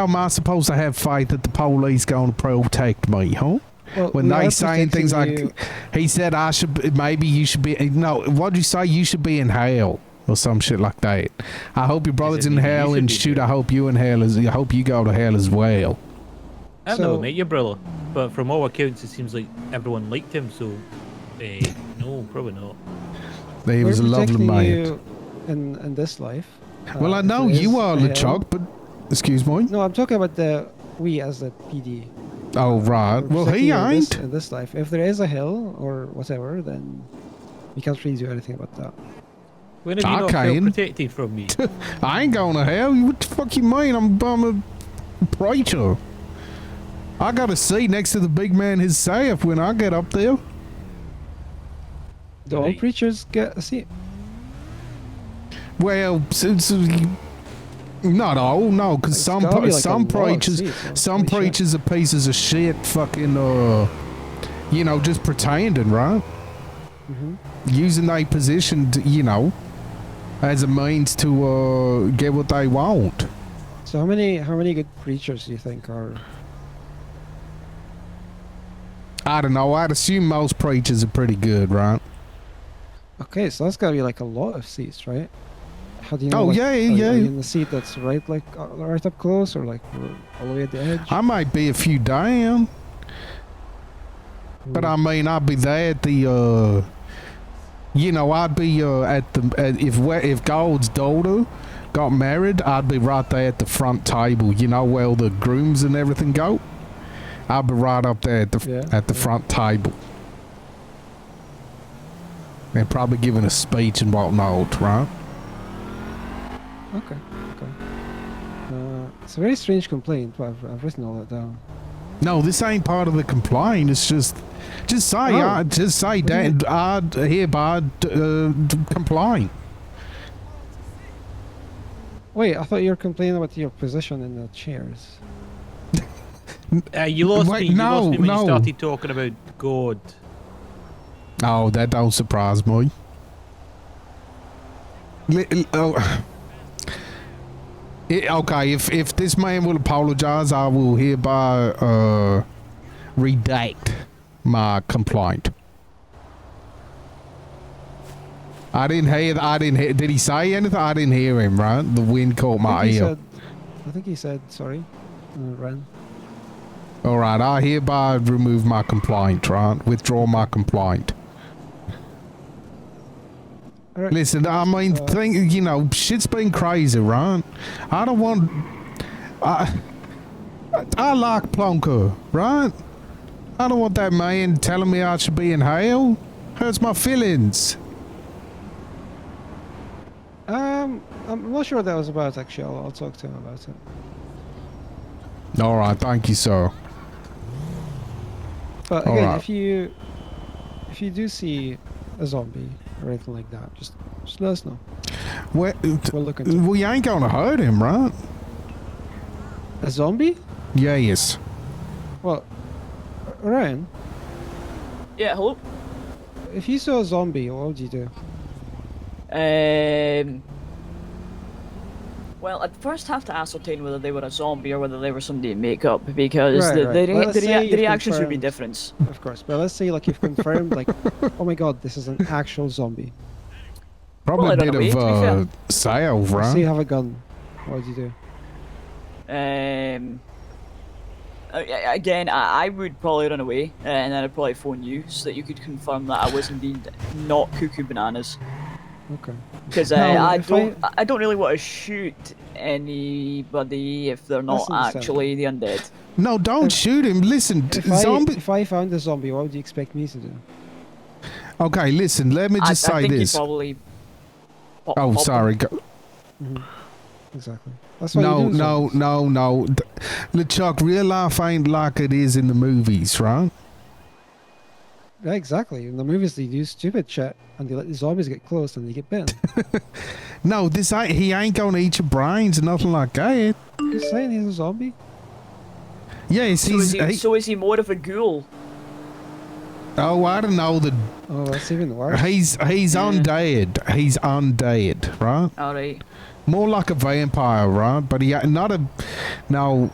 How am I supposed to have faith that the police going to protect me, huh? Well, When we are they saying things like, protecting he said I should, be- maybe you should be, no, what'd you say? You should be in hell or some shit like that. I hope your brother's said in you- you hell should and be shoot, too. I hope you in hell, as, I hope you go to hell as well. I've So- never met your brother, but from all accounts, it seems like everyone liked him. So, eh, no, probably not. He you, was a we're lovely protecting man. you in in this life. well, Uh, I if know there is you are, hell- LeChuck, but, excuse me? No, I'm talking about the we as the PD. Oh, right. We're Well, protecting he you in this, ain't. in this life. If there is a hell or whatever, then we can't really do anything about that. When have you not Okay. felt protected from me? I ain't going to hell. You- What the fuck you mean? I'm, I'm a preacher. I got a seat next to the big man himself when I get up there. Do all Right. preachers get a seat? Well, since not all, no, because It's some gotta pre- be like a some law of preachers, seats, huh? some Holy shit. preachers are pieces of shit, fucking, uh, you know, just pretending, right? Mhm. Using their position, to, you know, as a means to uh, get what they want. So how many how many good preachers do you think are? I don't know. I'd assume most preachers are pretty good, right? Okay, so that's gotta be like a lot of seats, right? How do you know? Oh, like, yeah, are you- yeah. Are you in the seat that's right, like uh, right up close, or like r- all the way at the edge? I might be a few down, but I mean, I'd be there at the, uh, you know, I'd be uh, at the at, if we- if Gold's daughter got married, I'd be right there at the front table. You know, where all the grooms and everything go. I'd be right up there at the Yeah, at the yeah. front table. And probably giving a speech and whatnot, right? Okay, okay. Uh, it's a very strange complaint, but I've, I've written all that down. No, this ain't part of the complaint. It's just, just say, Oh. I, just say, What do you Dan, I d- hereby d- uh, d- complain. Wait, I thought you were complaining about your position in the chairs. Uh, you lost Wait, me. You no, lost me when no. you started talking about God. No, Oh, that don't surprise me. Li- li- oh. It- okay, if if this man will apologize, I will hereby uh, redact my complaint. I didn't hear. I didn't hear. Did he say anything? I didn't hear him. Right, the wind caught my I ear. think he said, I think he said sorry. Uh, ran. All right, I hereby remove my complaint, right? Withdraw my complaint. All right. Listen, I mean, Uh, think you know, shit's been crazy, right? I don't want. I I like Plonker, right? I don't want that man telling me I should be in hell. Hurts my feelings. Um, I'm not sure what that was about. Actually, I'll, I'll talk to him about it. All right, thank you, sir. But All again, right. if you if you do see a zombie or anything like that, just just let us know. Well, We'll look into it. we ain't gonna hurt him, right? A zombie? Yes. Well, Ryan, Yeah, hello. if you saw a zombie, what would you do? Um, well, I'd first have to ascertain whether they were a zombie or whether they were somebody in makeup because Right, the, right. The, Well, rea- let's the, say rea- the you've reactions would be confirmed- different. Of course, but let's say like you've confirmed, like, oh my god, this is an actual zombie. Probably Well, I don't a know, bit of uh, to sale, So you right? have a gun. What would you do? Um, a- a- again, I, I would probably run away uh, and then I'd probably phone you so that you could confirm that I was indeed not cuckoo bananas Okay. because uh, No, I if I- don't I... I don't really want to shoot anybody if they're not That's understandable. actually the undead. No, don't If- shoot him. Listen, t- If I, zombie. if I found a zombie, what would you expect me to do? Okay, listen, let me I, I just say think this. you probably. pop- Oh, pop them. sorry. Go- Exactly. That's what no, you do. no, zombies. no, no. Th- LeChuck, real life ain't like it is in the movies, right? Yeah, exactly. In the movies, they do stupid shit, and they let the zombies get close, and they get bitten. No, this ain't, he ain't gonna eat your brains or nothing like that. you saying he's a zombie? Yes, So he's. is, He, he, so is he more of a ghoul? oh, I don't know. The Oh, that's even worse. he's he's Yeah. undead. He's undead, right? All right. More like a vampire, right? But he not a. No,